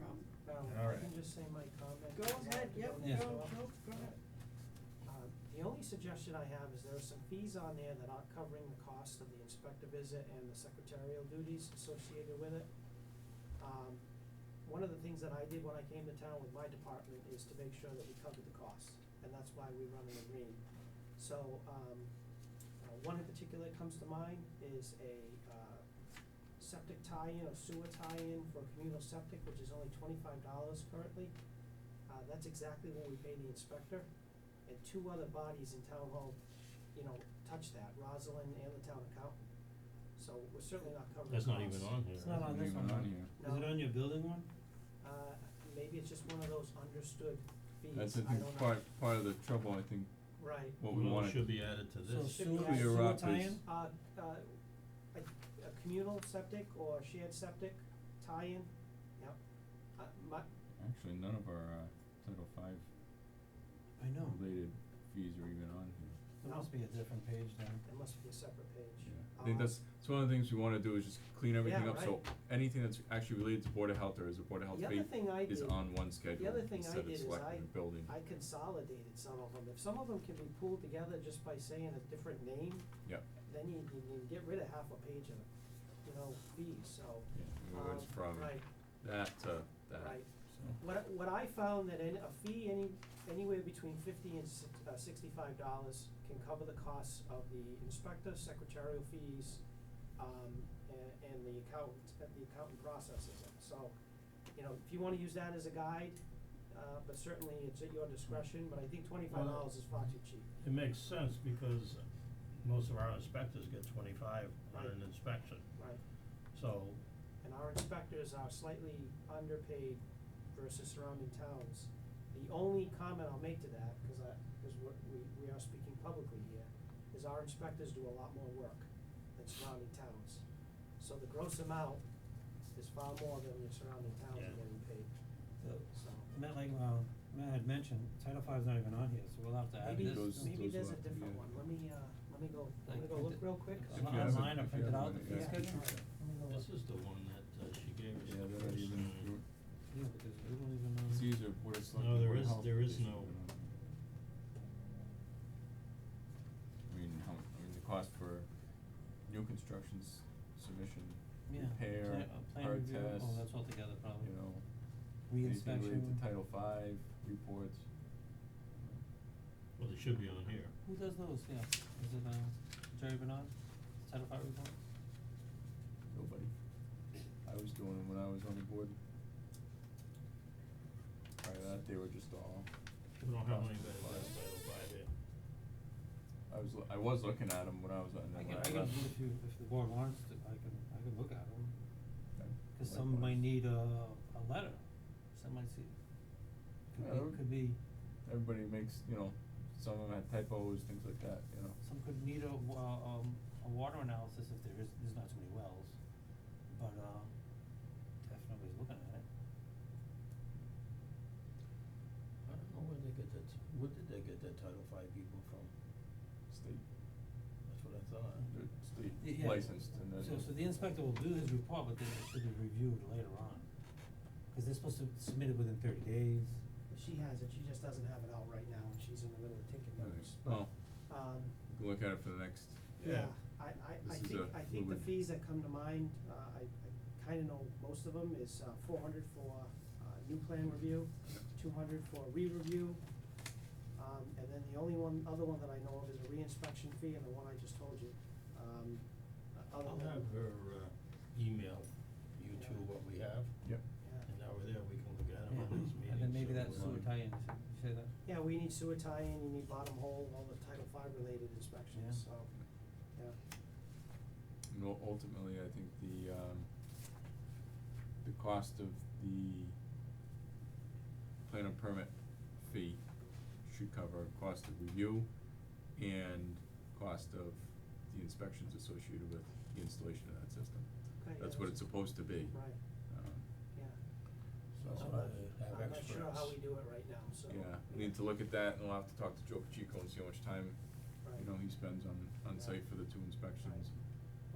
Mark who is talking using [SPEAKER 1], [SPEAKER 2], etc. [SPEAKER 1] comment.
[SPEAKER 2] All
[SPEAKER 1] I
[SPEAKER 2] right.
[SPEAKER 1] can just say my comment.
[SPEAKER 3] Go ahead, yep,
[SPEAKER 2] Yeah.
[SPEAKER 3] go, go, go ahead.
[SPEAKER 1] Uh, The only suggestion I have is there are some fees on there that aren't covering the cost of the inspector visit and the secretarial duties associated with it. Um, One of the things that I did when I came to town with my department is to make sure that we covered the cost, and that's why we run an agreement. So, um, uh, one in particular that comes to mind is a, uh, septic tie-in or sewer tie-in for communal septic, which is only twenty-five dollars currently. Uh, that's exactly what we pay the inspector, and two other bodies in town hall, you know, touch that, Rosalind and the town accountant. So we're certainly not covering
[SPEAKER 4] That's Oh, not
[SPEAKER 1] costs.
[SPEAKER 4] even on here.
[SPEAKER 3] It's not
[SPEAKER 4] right?
[SPEAKER 3] on this one, right?
[SPEAKER 4] Is it
[SPEAKER 1] No.
[SPEAKER 4] on your building one?
[SPEAKER 1] Uh, maybe it's just one of those understood fees,
[SPEAKER 5] That's, I
[SPEAKER 1] I
[SPEAKER 5] think,
[SPEAKER 1] don't know,
[SPEAKER 5] part, part of the trouble, I think,
[SPEAKER 1] right,
[SPEAKER 5] what we
[SPEAKER 4] Well, it
[SPEAKER 5] wanna
[SPEAKER 4] Should be added to
[SPEAKER 3] So
[SPEAKER 4] this.
[SPEAKER 3] sewer,
[SPEAKER 1] Clear
[SPEAKER 3] sewer
[SPEAKER 5] up
[SPEAKER 3] tie-in?
[SPEAKER 5] is-
[SPEAKER 1] uh, uh, a, a communal septic or shared septic tie-in, yep. Uh, my,
[SPEAKER 5] Actually, none of our, uh, Title Five
[SPEAKER 3] I know,
[SPEAKER 5] related fees are even on here,
[SPEAKER 3] there must be a different page then.
[SPEAKER 1] It must be a separate page.
[SPEAKER 5] yeah. I think
[SPEAKER 1] Uh,
[SPEAKER 5] that's, it's one of the things we wanna do is just clean everything
[SPEAKER 1] Yeah,
[SPEAKER 5] up, so anything that's actually related to Board of Health or is a Board of Health
[SPEAKER 1] The other
[SPEAKER 5] fee
[SPEAKER 1] thing I
[SPEAKER 5] is
[SPEAKER 1] did,
[SPEAKER 5] on one schedule
[SPEAKER 1] other thing I did
[SPEAKER 5] instead of
[SPEAKER 1] is I-
[SPEAKER 5] selecting a building,
[SPEAKER 1] I consolidated some of them. If some of them can be pulled together just by saying a different name,
[SPEAKER 5] yeah,
[SPEAKER 1] then you, you can get rid of half a page of, you know, fees, so.
[SPEAKER 5] yeah, we
[SPEAKER 1] um,
[SPEAKER 5] went from
[SPEAKER 1] Right,
[SPEAKER 5] that to that,
[SPEAKER 1] right.
[SPEAKER 5] so,
[SPEAKER 1] What, I- what I found that in, a fee any, anywhere between fifty and six, uh, sixty-five dollars can cover the costs of the inspector, secretarial fees, um, and, and the accountant, that the accountant processes it. So, you know, if you wanna use that as a guide, uh, but certainly it's at your discretion, but I think twenty-five dollars is far too cheap.
[SPEAKER 4] It makes sense because most of our inspectors get twenty-five on
[SPEAKER 1] Right.
[SPEAKER 4] an inspection,
[SPEAKER 1] Right.
[SPEAKER 4] so,
[SPEAKER 1] And our inspectors are slightly underpaid versus surrounding towns. The only comment I'll make to that, because I, because we're, we, we are speaking publicly here, is our inspectors do a lot more work than surrounding towns. So the gross amount is far more than your surrounding towns
[SPEAKER 4] Yeah.
[SPEAKER 1] are getting paid,
[SPEAKER 3] So,
[SPEAKER 1] so.
[SPEAKER 3] Matt, like, uh, Matt had mentioned, Title Five's not even on here, so we'll have to add
[SPEAKER 1] Maybe,
[SPEAKER 3] this.
[SPEAKER 5] Those-
[SPEAKER 1] maybe
[SPEAKER 5] those
[SPEAKER 1] there's a
[SPEAKER 5] will have to be
[SPEAKER 1] different
[SPEAKER 5] added.
[SPEAKER 1] one, let me, uh, let me go, let me
[SPEAKER 3] Like,
[SPEAKER 1] go
[SPEAKER 3] print
[SPEAKER 1] look
[SPEAKER 3] it-
[SPEAKER 1] real quick.
[SPEAKER 3] If
[SPEAKER 5] If
[SPEAKER 3] you Uh,
[SPEAKER 5] you have it-
[SPEAKER 3] Online, I
[SPEAKER 5] if you
[SPEAKER 3] printed
[SPEAKER 5] have
[SPEAKER 3] out the
[SPEAKER 5] it,
[SPEAKER 3] fee
[SPEAKER 5] yeah.
[SPEAKER 3] schedule.
[SPEAKER 4] this is the one that uh, she gave us. Uh,
[SPEAKER 5] yeah,
[SPEAKER 4] the
[SPEAKER 5] they're not
[SPEAKER 4] first
[SPEAKER 5] even,
[SPEAKER 4] time.
[SPEAKER 5] you're-
[SPEAKER 3] Yeah, because we don't even know.
[SPEAKER 5] it's easier, Board of Selectmen,
[SPEAKER 4] No, there
[SPEAKER 5] Board of
[SPEAKER 4] is-
[SPEAKER 5] Health
[SPEAKER 4] there is
[SPEAKER 5] isn't
[SPEAKER 4] no-
[SPEAKER 5] even on here. I mean, how, I mean, the cost for new constructions, submission,
[SPEAKER 3] Yeah, plan,
[SPEAKER 5] repair,
[SPEAKER 3] uh, plan
[SPEAKER 5] hard
[SPEAKER 3] review,
[SPEAKER 5] test,
[SPEAKER 3] oh, that's all together probably.
[SPEAKER 5] you know, anything related
[SPEAKER 3] Reinspection.
[SPEAKER 5] to Title Five, reports.
[SPEAKER 4] Well, it should be on here.
[SPEAKER 3] Who does those, yeah, is it, uh, Jerry Bernard, Title Five report?
[SPEAKER 5] Nobody. I was doing them when I was on the board. Prior to that, they were just all,
[SPEAKER 4] We don't have
[SPEAKER 5] Cost
[SPEAKER 4] anybody
[SPEAKER 5] of
[SPEAKER 4] that does
[SPEAKER 5] life.
[SPEAKER 4] Title Five here.
[SPEAKER 5] I was, lo- I was looking at them when I was on,
[SPEAKER 3] I
[SPEAKER 5] then
[SPEAKER 3] can, I
[SPEAKER 5] when I
[SPEAKER 3] can, if
[SPEAKER 5] left.
[SPEAKER 3] you, if the board wants to, I can, I can look at them,
[SPEAKER 5] Okay,
[SPEAKER 3] cause some
[SPEAKER 5] likewise.
[SPEAKER 3] might need a, a letter, some might see,
[SPEAKER 5] Yeah,
[SPEAKER 3] could be, could
[SPEAKER 5] that would-
[SPEAKER 3] be,
[SPEAKER 5] Everybody makes, you know, some of them had typos, things like that, you know.
[SPEAKER 3] some could need a, wa- um, a water analysis if there is, there's not too many wells, but, uh, definitely looking at it.
[SPEAKER 4] I don't know where they get that, where did they get that Title Five people from?
[SPEAKER 5] State,
[SPEAKER 4] That's what I thought.
[SPEAKER 5] they're
[SPEAKER 3] Y-
[SPEAKER 5] state
[SPEAKER 3] yeah.
[SPEAKER 5] licensed and then.
[SPEAKER 3] So, so the inspector will do his report, but then it should be reviewed later on, cause they're supposed to submit it within thirty days.
[SPEAKER 1] She has it, she just doesn't have it out right now, and she's in the middle of taking
[SPEAKER 5] Right.
[SPEAKER 1] notes,
[SPEAKER 5] Well,
[SPEAKER 1] um,
[SPEAKER 5] we can look at it for the next.
[SPEAKER 4] Yeah.
[SPEAKER 1] Yeah, I, I, I
[SPEAKER 5] This is
[SPEAKER 1] think,
[SPEAKER 5] a
[SPEAKER 1] I think the
[SPEAKER 5] fluid-
[SPEAKER 1] fees that come to mind, uh, I, I kinda know most of them, is, uh, four hundred for, uh, new plan review, two hundred for re-review, um, and then the only one, other one that I know of is a re-inspection fee, and the one I just told you, um, uh, other
[SPEAKER 4] I'll
[SPEAKER 1] than,
[SPEAKER 4] have her uh email you two what we have,
[SPEAKER 5] Yep.
[SPEAKER 1] yeah.
[SPEAKER 4] and now we're there, we can look at it on
[SPEAKER 3] Yeah,
[SPEAKER 4] this meeting.
[SPEAKER 3] and then maybe
[SPEAKER 4] so
[SPEAKER 3] that
[SPEAKER 4] we're
[SPEAKER 3] sewer
[SPEAKER 4] on-
[SPEAKER 3] tie-in, should you say that?
[SPEAKER 1] Yeah, we need sewer tie-in, you need bottom hole, all the Title Five related inspections, so, yeah.
[SPEAKER 5] And ul- ultimately, I think the, um, the cost of the plan and permit fee should cover cost of review and cost of the inspections associated with the installation of that system.
[SPEAKER 1] Okay, yeah,
[SPEAKER 5] That's what it's supposed to be.
[SPEAKER 1] Right,
[SPEAKER 3] Mm-hmm.
[SPEAKER 5] Um,
[SPEAKER 1] yeah,
[SPEAKER 4] So
[SPEAKER 5] That's
[SPEAKER 4] I'm
[SPEAKER 5] what I-
[SPEAKER 4] gonna have
[SPEAKER 1] I'm not
[SPEAKER 4] experts.
[SPEAKER 1] sure how we do it right now, so.
[SPEAKER 5] Yeah, we need to look at that and we'll have to talk to Joe Pacheco and see how much time,
[SPEAKER 1] Right.
[SPEAKER 5] you know, he spends on, on
[SPEAKER 1] Right.
[SPEAKER 5] site for the two inspections.
[SPEAKER 1] Right.